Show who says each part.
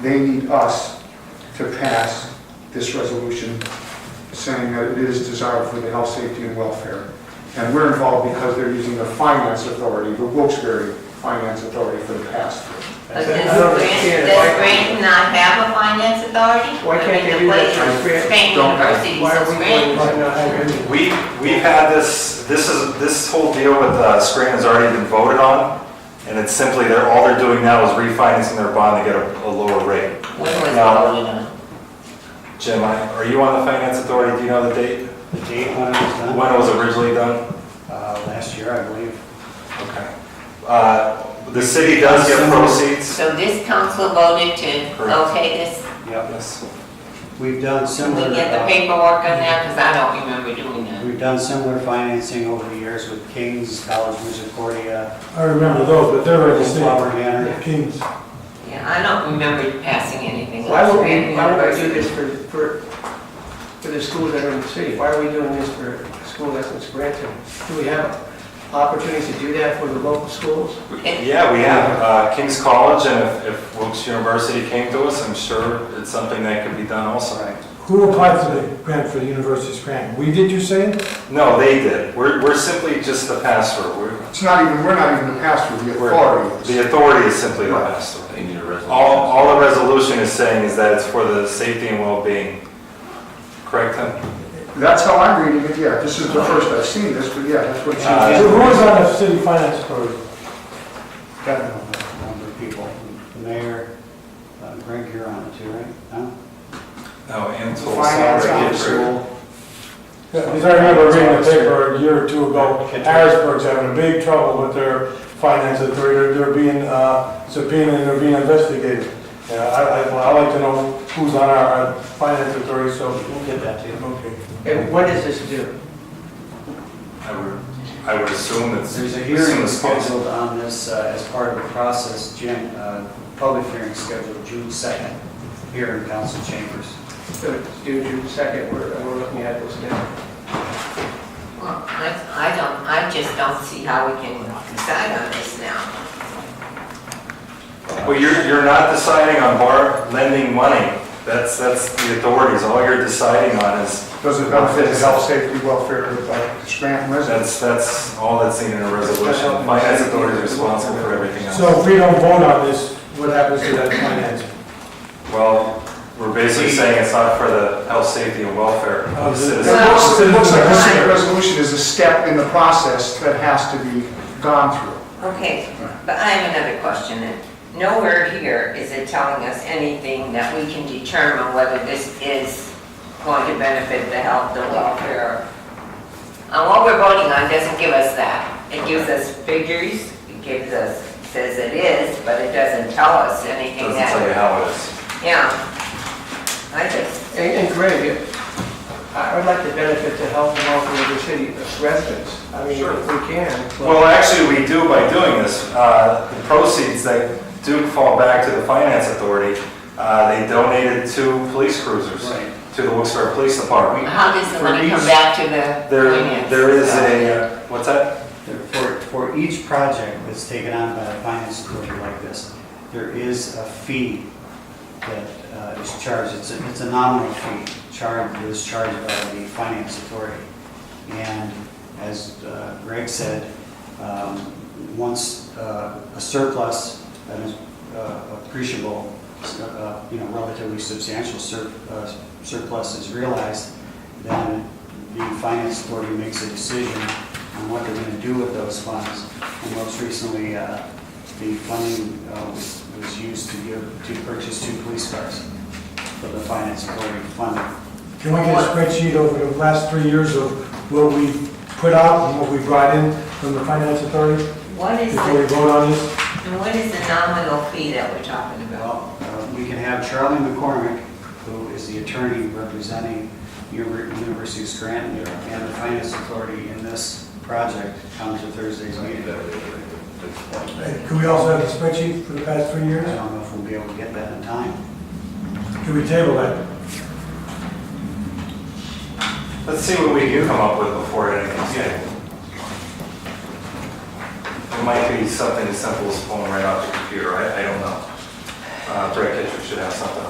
Speaker 1: They need us to pass this resolution saying that it is desired for the health, safety, and welfare. And we're involved because they're using the finance authority, the Wilkes-Barre Finance Authority for the pass-through.
Speaker 2: But
Speaker 3: I
Speaker 2: does
Speaker 3: don't
Speaker 2: Grant,
Speaker 3: understand
Speaker 2: does
Speaker 3: why-
Speaker 2: Grant not have a finance authority?
Speaker 3: Why can't they
Speaker 2: I mean, the
Speaker 3: do that
Speaker 2: place
Speaker 3: for
Speaker 2: is
Speaker 3: Grant?
Speaker 2: Grant
Speaker 1: Don't-
Speaker 2: University,
Speaker 3: Why are
Speaker 2: so
Speaker 3: we
Speaker 2: Grant-
Speaker 3: going to not have any?
Speaker 4: We, we've had this, this is, this whole deal with uh, Scranton has already been voted on, and it's simply, they're, all they're doing now is refinancing their bond to get a, a lower rate.
Speaker 2: When was
Speaker 4: Now-
Speaker 2: voted on?
Speaker 4: Jim, I- are you on the finance authority, do you know the date,
Speaker 5: The date when it was
Speaker 4: when it
Speaker 5: done,
Speaker 4: was originally done?
Speaker 5: uh, last year, I believe.
Speaker 4: Okay. Uh, the city does get proceeds.
Speaker 2: So this council voted to
Speaker 4: Correct.
Speaker 2: okay this?
Speaker 5: Yep,
Speaker 4: Yes.
Speaker 5: we've done
Speaker 2: Can
Speaker 5: similar,
Speaker 2: we get the
Speaker 5: uh,
Speaker 2: paperwork on that? Because I don't remember doing that.
Speaker 5: we've done similar financing over the years with Kings, College Misericordia,
Speaker 3: I remember those, but they're in the
Speaker 5: Flower
Speaker 3: same,
Speaker 5: Manor.
Speaker 3: the Kings.
Speaker 2: Yeah, I don't remember passing anything.
Speaker 3: Why would
Speaker 2: Grant
Speaker 3: we, why would we do
Speaker 2: University.
Speaker 3: this for, for, for the schools that are in the city? Why are we doing this for a school that's in Scranton? Do we have opportunities to do that for the local schools?
Speaker 4: Yeah, we have, uh, King's College, and if, if Wilkes University came to us, I'm sure it's something that could be done also.
Speaker 5: Right.
Speaker 6: Who applied for the grant for the university's grant? We did, you say?
Speaker 5: Uh,
Speaker 4: No, they did, we're, we're simply just the pass-through, we're,
Speaker 1: It's not even, we're not even the pass-through, the authority is.
Speaker 4: The authority is simply the master.
Speaker 7: They need a resolution.
Speaker 4: All, all the resolution is saying is that it's for the safety and well-being. Correct, Tim?
Speaker 1: That's how I'm reading it, yeah. This is the first I've seen this, but yeah, that's what
Speaker 4: Uh,
Speaker 1: you...
Speaker 6: Who was on the city finance authority?
Speaker 5: Got a number of people, the mayor, uh, Greg, you're on it too, right? No?
Speaker 4: No, and total
Speaker 1: Finance
Speaker 4: salary
Speaker 1: officer.
Speaker 4: approved.
Speaker 6: Because I remember reading the paper a year or two ago, Harrisburg's having a big trouble with their finance authority, They're- they're being uh, subpoenaed, and they're being investigated. Yeah, I, I, well, I like to know who's on our uh, finance authority, so.
Speaker 5: We'll get that to you.
Speaker 6: Okay.
Speaker 3: And what does this do?
Speaker 4: I would, I would assume it's.
Speaker 5: There's a
Speaker 4: assume
Speaker 5: hearing
Speaker 4: it's possible.
Speaker 5: scheduled on this uh, as part of the process, Jim, uh, public hearing scheduled June 2nd here in council chambers.
Speaker 3: So it's due June second, we're, and we're looking at this now.
Speaker 2: Well, I I don't, I just don't see how we can decide on this now.
Speaker 4: Well, you're, you're not deciding on bar, lending money. That's, that's the authorities. All you're deciding on is,
Speaker 1: Does it benefit the health, safety, welfare of uh, Scranton residents?
Speaker 4: that's, that's all that's seen in a resolution. Finance authority is responsible for everything else.
Speaker 6: So if we don't vote on this, what happens to that finance?
Speaker 4: Well, we're basically saying it's not for the health, safety, and welfare of the
Speaker 1: It
Speaker 4: citizens.
Speaker 1: looks, it looks like this resolution is a step in the process that has to be gone through.
Speaker 2: Okay, but I have another question then. Nowhere here is it telling us anything that we can determine whether this is going to benefit the health, the welfare. And what we're voting on doesn't give us that. It gives us figures, it gives us, says it is, but it doesn't tell us anything
Speaker 4: Doesn't tell you
Speaker 2: that,
Speaker 4: how it is.
Speaker 2: yeah. I just,
Speaker 3: And and Greg, if- I would like to benefit the health and welfare of the city the residents. I mean,
Speaker 4: Sure.
Speaker 3: if we can. but-
Speaker 4: Well, actually, we do by doing this. Uh, The proceeds that do fall back to the finance authority, uh, they donated two police cruisers
Speaker 5: Right.
Speaker 4: to the Wilkes-Barre Police Department.
Speaker 2: how does the
Speaker 5: For
Speaker 2: money come
Speaker 5: each-
Speaker 2: back to the
Speaker 4: There,
Speaker 2: finance?
Speaker 4: there is a, uh, what's that?
Speaker 5: For, for each project that's taken on by the finance authority like this, there is a fee that uh, is charged, it's a, it's a nominal fee, charged, that is charged by the finance authority. And as uh, Greg said, um, once uh, a surplus, that is uh, appreciable, uh, you know, relatively substantial sur- uh, surplus is realized, then the finance authority makes a decision on what they're going to do with those funds. And most recently, uh, the funding uh, was was used to give, to purchase two police cars for the finance authority funding.
Speaker 6: Can we get a spreadsheet over the last three years of what we put out and what we brought in from the finance authority
Speaker 2: What is
Speaker 6: before we
Speaker 2: the,
Speaker 6: vote on this?
Speaker 2: what is the nominal fee that we're talking about?
Speaker 5: Well, uh, we can have Charlie McCormick, who is the attorney representing Univer- University of Scranton and the finance authority in this project, come to Thursday's meeting.
Speaker 6: Uh, Could we also have the spreadsheet for the past three
Speaker 5: I
Speaker 6: years?
Speaker 5: don't know if we'll be able to get that in time.
Speaker 6: Can we table that?
Speaker 4: Let's see what we can come up with before anything's taken. It might be something as simple as pulling right off the computer, I, I don't know. uh, Brad Kittredge should have something